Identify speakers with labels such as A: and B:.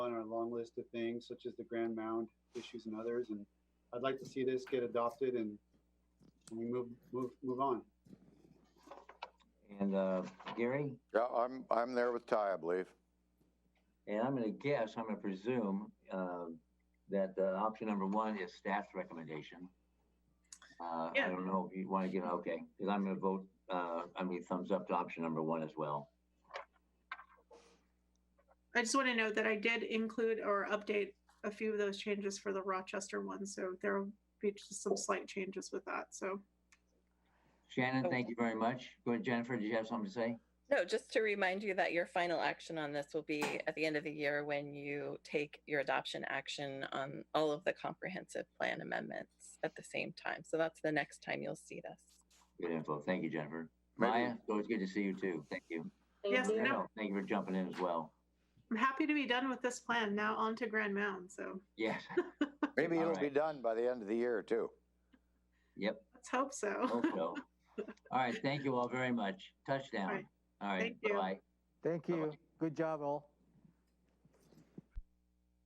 A: list of things such as the Grand Mound issues and others. And I'd like to see this get adopted and and we move, move, move on.
B: And uh, Gary,
C: Yeah, I'm, I'm there with Ty, I believe.
B: and I'm going to guess, I'm going to presume uh, that uh, option number one is staff's recommendation. Uh, I
D: Yeah.
B: don't know if you want to get, okay, because I'm going to vote, uh, I mean, thumbs up to option number one as well.
D: I just want to note that I did include or update a few of those changes for the Rochester one, so there will be just some slight changes with that, so.
B: Shannon,
E: Oh.
B: thank you very much. Go ahead, Jennifer, did you have something to say?
E: No, just to remind you that your final action on this will be at the end of the year when you take your adoption action on all of the comprehensive plan amendments at the same time. So that's the next time you'll see this.
B: Good info. Thank you, Jennifer.
C: Maybe-
B: Maya, it's always good to see you too. Thank you.
D: Yes,
B: Thank
D: no,
B: you for jumping in as well.
D: I'm happy to be done with this plan, now on to Grand Mound, so
B: Yes,
C: Maybe
B: All
C: it'll be
B: right.
C: done by the end of the year, too.
B: yep,
D: let's hope so.
B: hope so. All right, thank you all very much. Touchdown.
D: All right.
B: All right,
D: Thank you.
B: bye-bye.
F: Thank
B: Bye-bye.
F: you. Good job, all.